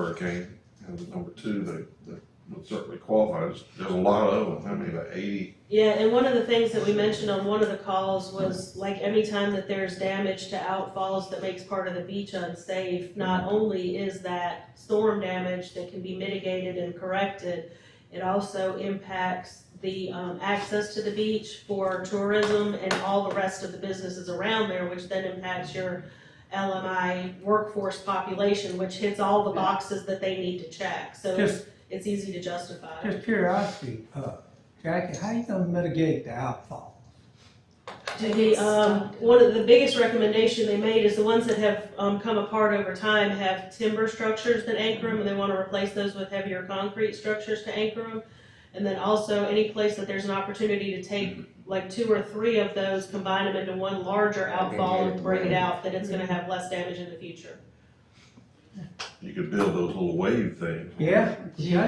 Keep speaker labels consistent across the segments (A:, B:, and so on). A: hurricane, and the number two that, that would certainly qualify, there's, there's a lot of them, how many, about eighty?
B: Yeah, and one of the things that we mentioned on one of the calls was like anytime that there's damage to outfalls that makes part of the beach unsafe, not only is that storm damage that can be mitigated and corrected, it also impacts the, um, access to the beach for tourism and all the rest of the businesses around there, which then impacts your LMI workforce population, which hits all the boxes that they need to check, so it's,
C: Just,
B: it's easy to justify.
C: just curiosity, uh, Jackie, how you gonna mitigate the outfall?
B: The, um, one of the biggest recommendation they made is the ones that have, um, come apart over time have timber structures that anchor them, and they wanna replace those with heavier concrete structures to anchor them. And then also, any place that there's an opportunity to take like two or three of those, combine them into one larger outfall and bring it out, that it's gonna have less damage in the future.
A: You could build those little wave things.
C: Yeah?
D: That's
E: Yeah,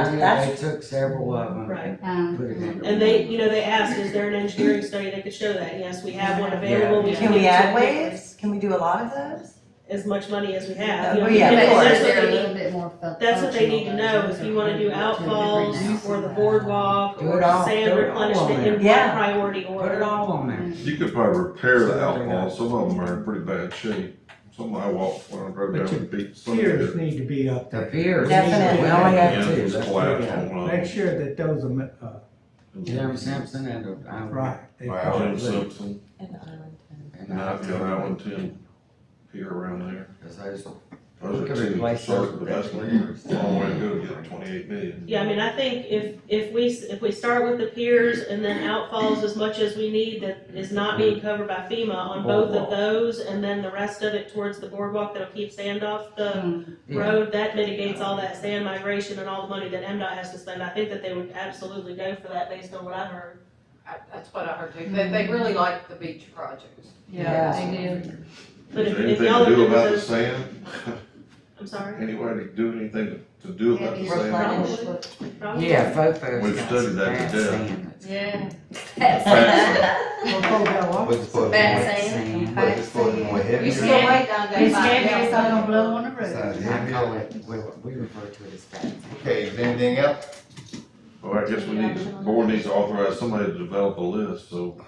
D: what they did,
E: that's-
D: they took several of them
B: Right.
D: and
E: Um,
D: put it in.
B: And they, you know, they asked, is there an engineering study that could show that? Yes, we have one available.
E: Can
B: give
E: we
B: it to
E: add
B: you.
E: waves? Can we do a lot of those?
B: As much money as we have. you
E: Oh,
B: know,
E: yeah, of
B: because
E: course.
B: that's what they need.
F: bit more fu-
B: That's what they need to
F: functional
B: know,
F: versions
B: if you
F: are
B: wanna do
F: kind of different now.
B: outfalls or the boardwalk
D: Do
B: or
D: it all-
B: sand
D: do it all
B: replenishment
D: on
B: in
D: there.
B: one
E: Yeah.
B: priority
D: Put it
B: order.
D: all on there.
A: You could probably repair the outfalls, some of them are in pretty bad shape, some I walked when I drove down the beach. some of
C: Piers
A: it-
C: need to be up
D: The
C: there.
D: piers.
E: Definitely.
D: We only
A: Yeah,
D: had
A: it
D: two,
A: was
D: that's
A: collapsed
D: what
A: on one of
C: Make
A: them.
C: sure that those are, mi- uh,
D: Jim Simpson and, uh,
C: right. They
A: Wow,
C: probably-
A: Jim Simpson,
D: and
A: and I've got
D: I,
A: Allen Ten here around there.
D: cause those,
A: Those are
D: Look at
A: two,
D: it, like,
A: certain, but that's a long way to go to get twenty-eight million.
B: Yeah, I mean, I think if, if we, s- if we start with the piers and then outfalls as much as we need that is not being covered by FEMA on both of
D: Boardwalk.
B: those, and then the rest of it towards the boardwalk that'll keep sand off the
D: yeah,
B: road, that mitigates all that sand migration and all the money that MDOT has to spend. I think that they would absolutely go for that based on what I heard.
G: I- That's what I heard too. They, they really like the beach projects.
D: Yeah.
F: Yeah, they do.
B: But
A: Is
B: if,
A: there
B: if
A: anything
B: y'all
A: to do
B: are good with
A: about the
B: those,
A: sand?
B: I'm sorry,
A: Anybody to do anything to do about the
E: Maybe
A: sand?
E: replenish.
B: probably.
D: yeah, Fofo's
A: We've
D: got
A: studied
D: some
A: that to
D: bad
A: death.
D: sand that's-
F: Yeah.
C: Well, folks, that wa-
H: What's
F: Some
H: supposed
F: bad
H: to
D: Wet
F: sand.
D: sand.
H: be, what's supposed to be
F: You
H: heavy?
F: still wait down there.
E: It's
F: by
E: heavy,
F: now.
E: it's not gonna blow on the
H: It's
E: roof.
H: not
D: I
H: heavy.
D: call it, we, we refer to it as bad sand.
H: Okay, is anything else?
A: Well, I guess we need, to- board needs to authorize somebody to develop a list, so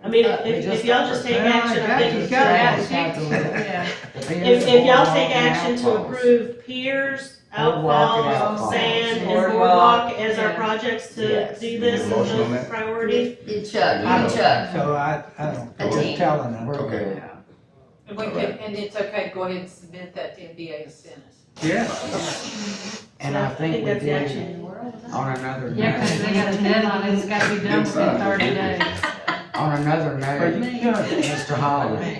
B: I mean,
H: Uh,
D: We
B: if, if
D: just
B: y'all
D: got
B: just
D: her.
B: take
C: Yeah,
B: action, I
C: got
B: think
C: you,
B: it's
C: got
B: great.
C: you.
F: Yeah.
B: If, if y'all take action to approve piers,
D: Boardwalk and
B: outfalls,
D: outfalls.
B: sand, and
E: Boardwalk,
B: boardwalk as our
F: yeah.
B: projects to
D: Yes.
B: do this
H: Need a motion on
B: as a
H: that?
B: priority.
F: You Chuck, I'm Chuck.
C: So I, I don't, I'm just
F: Okay.
C: telling them.
H: Okay.
G: And we can, and it's okay, go ahead and submit that to NBA and send us.
C: Yeah.
D: And I think we
B: that's the
D: did,
B: action.
D: on another
E: Yeah,
D: note,
E: 'cause
F: they got a deadline, it's gotta be
H: done within 30
F: days.
D: on another
C: Are
D: note,
C: you, done?
D: Mr. Holly,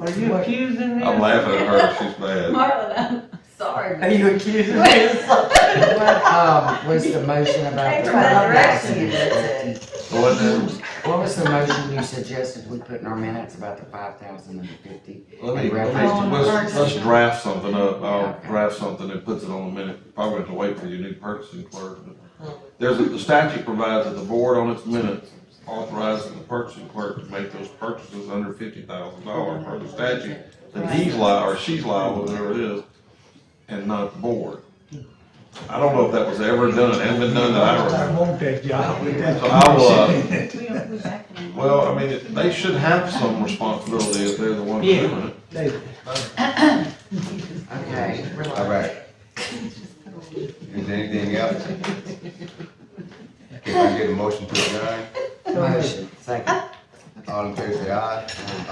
C: are you accusing me?
A: I'm laughing at her, she's mad.
F: Marlon, I'm sorry.
D: Are you accusing me of something? What, um, was the motion about the
E: Thanks for that
D: road
E: direction.
D: accident?
A: Well, then,
D: What was the motion you suggested we put in our minutes about the five thousand and the fifty?
A: let me, let
D: Oh,
A: me,
D: on the
A: let's,
D: first.
A: let's draft something up, I'll
D: Okay.
A: draft something that puts it on the minute, probably have to wait for your new purchasing clerk. There's, a- the statute provides that the board on its minutes authorizes the purchasing clerk to make those purchases under fifty thousand dollars per the statute. That he's liable, or she's liable, whatever it is, and not the board. I don't know if that was ever done, it hasn't been done that I remember.
C: I want that job.
A: So I'll, uh,
E: We don't put back in.
A: well, I mean, it- they should have some responsibility if they're the ones
C: Yeah.
A: doing it.
C: They-
D: Okay,
H: All
D: relax.
H: right. Is there anything else? Can I get a motion to adjourn?
D: Motion, second.
H: All in favor, say aye.